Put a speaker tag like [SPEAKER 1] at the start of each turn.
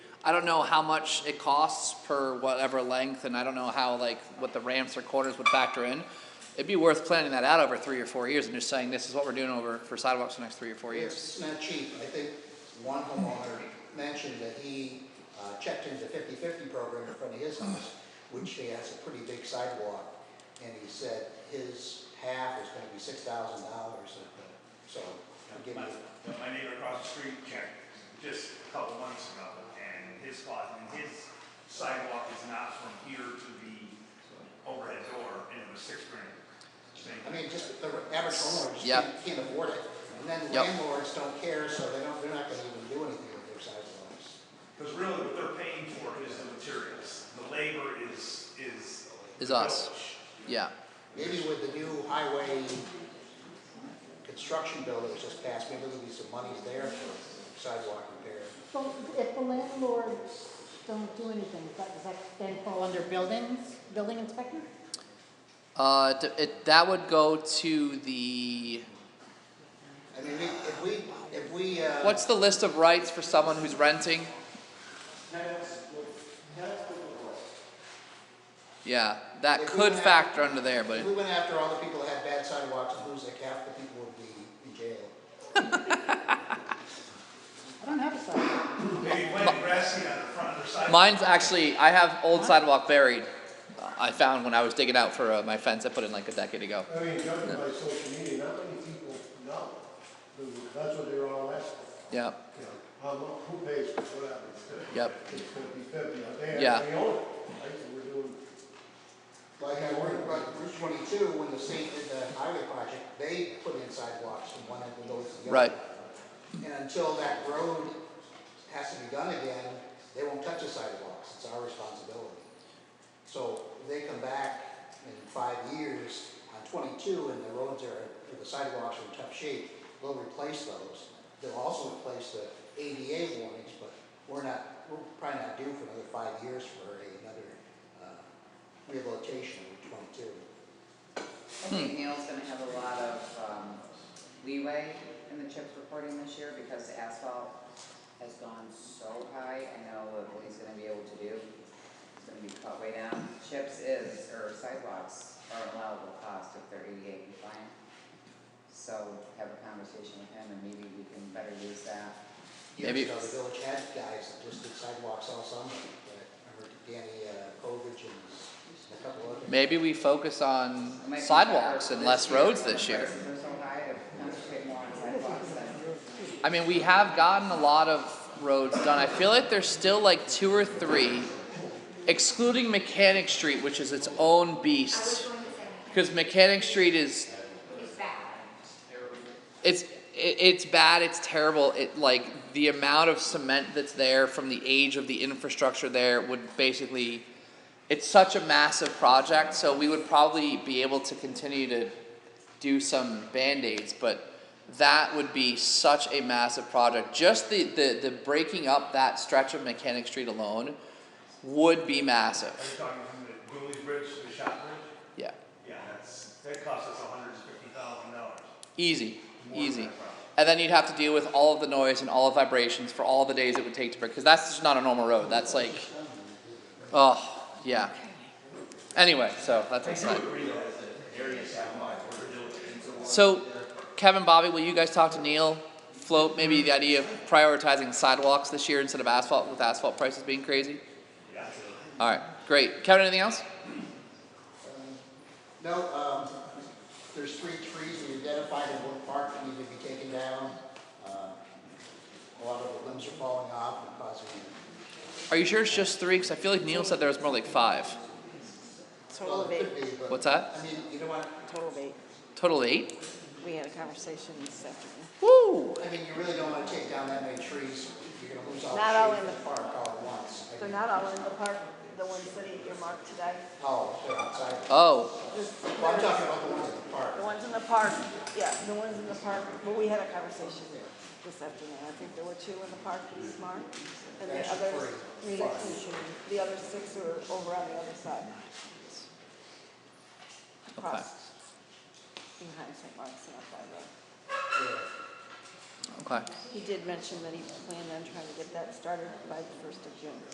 [SPEAKER 1] I don't know how much it costs per whatever length, and I don't know how, like, what the ramps or quarters would factor in. It'd be worth planning that out over three or four years and just saying, this is what we're doing over, for sidewalks the next three or four years.
[SPEAKER 2] It's not cheap. I think one homeowner mentioned that he uh, checked into fifty-fifty program in front of his house, which he has a pretty big sidewalk, and he said his half is gonna be six thousand dollars, uh, so to give
[SPEAKER 3] My,
[SPEAKER 2] you,
[SPEAKER 3] my neighbor across the street checked just a couple months ago, and his spot, and his sidewalk is not from here to the overhead door, and it was six grand.
[SPEAKER 2] I mean, just the average homeowner just
[SPEAKER 1] Yeah.
[SPEAKER 2] can't, can't afford it. And
[SPEAKER 1] Yep.
[SPEAKER 2] then landlords don't care, so they don't, they're not gonna even do anything with their sidewalks.
[SPEAKER 3] Because really what they're paying for is the materials, the labor is, is.
[SPEAKER 1] Is us.
[SPEAKER 3] the village.
[SPEAKER 1] Yeah,
[SPEAKER 2] Maybe with the new highway construction bill that was just passed, maybe there'll be some monies there for sidewalk repair.
[SPEAKER 4] Well, if the landlords don't do anything, does that- does that then fall under buildings, building inspector?
[SPEAKER 1] uh, d- it, that would go to the,
[SPEAKER 2] I mean, we- if we, if we, uh.
[SPEAKER 1] what's the list of rights for someone who's renting? Yeah, that
[SPEAKER 2] If we
[SPEAKER 1] could
[SPEAKER 2] have-
[SPEAKER 1] factor under there, but.
[SPEAKER 2] If we went after all the people that had bad sidewalks, and lose like half the people would be in jail.
[SPEAKER 4] I don't have a sidewalk.
[SPEAKER 3] Maybe planting grassy on the front of their sidewalk.
[SPEAKER 1] Mine's actually, I have old sidewalk buried. uh, I found when I was digging out for uh, my fence I put in like a decade ago.
[SPEAKER 5] I mean, judging by social media, not many people know. That's what they're all asking,
[SPEAKER 1] Yep,
[SPEAKER 5] you know, how mu- who pays for what happens?
[SPEAKER 1] Yep.
[SPEAKER 5] It's gonna be fifty, I think,
[SPEAKER 1] Yeah.
[SPEAKER 5] they own it, right, so we're doing,
[SPEAKER 2] Like I worried about Route twenty-two, when the state did the highway project, they put in sidewalks from one end of the road to the other.
[SPEAKER 1] Right.
[SPEAKER 2] And until that road has to be done again, they won't touch the sidewalks, it's our responsibility. So if they come back in five years on twenty-two and the roads are, or the sidewalks are in tough shape, they'll replace those. They'll also replace the ADA warnings, but we're not, we're probably not due for another five years for a- another, uh, rehabilitation of Route twenty-two.
[SPEAKER 6] I think Neil's gonna have a lot of um, leeway in the CHIPS reporting this year because the asphalt has gone so high. I know what he's gonna be able to do. It's gonna be cut way down. CHIPS is, or sidewalks are allowable cost if they're ADA compliant. So have a conversation with him and maybe we can better use that.
[SPEAKER 1] Maybe-
[SPEAKER 2] Years ago, the village had guys that just did sidewalks all summer, but I remember Danny uh, Kovich and a couple other.
[SPEAKER 1] maybe we focus on
[SPEAKER 6] It might be
[SPEAKER 1] sidewalks
[SPEAKER 6] better
[SPEAKER 1] and less roads
[SPEAKER 6] when
[SPEAKER 1] this
[SPEAKER 6] the
[SPEAKER 1] year.
[SPEAKER 6] Prices are so high to concentrate more on sidewalks than.
[SPEAKER 1] I mean, we have gotten a lot of roads done. I feel like there's still like two or three, excluding Mechanic Street, which is its own beast. Because Mechanic Street is it's it, it's bad it's terrible it like the amount of cement that's there from the age of the infrastructure there would basically it's such a massive project so we would probably be able to continue to do some band-aids but that would be such a massive project just the the, the breaking up that stretch of mechanic street alone would be
[SPEAKER 3] Are you
[SPEAKER 1] massive
[SPEAKER 3] talking from the Dooley Bridge to the Shop Bridge?
[SPEAKER 1] yeah
[SPEAKER 3] Yeah, that's, that cost us hundred and fifty thousand dollars.
[SPEAKER 1] Easy, easy. And then you'd have to deal with all of the noise and all the vibrations for all the days it would take to break, because that's just not a normal road. That's like, oh, yeah. Anyway, so that's exciting. So, Kevin, Bobby, will you guys talk to Neil? Float maybe the idea of prioritizing sidewalks this year instead of asphalt with asphalt prices being crazy? All right, great. Kevin, anything else?
[SPEAKER 2] No, um, there's three trees we identified in Wood Park that need to be taken down. Uh, A lot of the limbs are falling off and causing,
[SPEAKER 1] Are you sure it's just three? Because I feel like Neil said there was more like five.
[SPEAKER 2] well, it could be, but.
[SPEAKER 1] What's that?
[SPEAKER 2] I mean, you know what,
[SPEAKER 7] Total of eight.
[SPEAKER 1] Total eight?
[SPEAKER 7] We had a conversation this afternoon.
[SPEAKER 1] Woo!
[SPEAKER 2] I mean, you really don't wanna take down that many trees, you're gonna lose all
[SPEAKER 7] Not all
[SPEAKER 2] the shade
[SPEAKER 7] in
[SPEAKER 2] in the
[SPEAKER 7] the-
[SPEAKER 2] park all at once. I
[SPEAKER 7] They're
[SPEAKER 2] mean,
[SPEAKER 7] not all in the park, the ones that he earmarked today.
[SPEAKER 2] Oh, they're outside,
[SPEAKER 1] Oh,
[SPEAKER 7] This-
[SPEAKER 2] well, I'm talking about the ones in the park.
[SPEAKER 7] The ones in the park, yeah, the ones in the park, but we had a conversation this afternoon. I think there were two in the park in Smart, and the
[SPEAKER 2] That's
[SPEAKER 7] others,
[SPEAKER 2] free.
[SPEAKER 7] six, the other six are over on the other side. Across, behind St. Mark's and up by the,
[SPEAKER 2] Yeah.
[SPEAKER 1] Okay.
[SPEAKER 7] He did mention that he planned on trying to get that started by the first of June.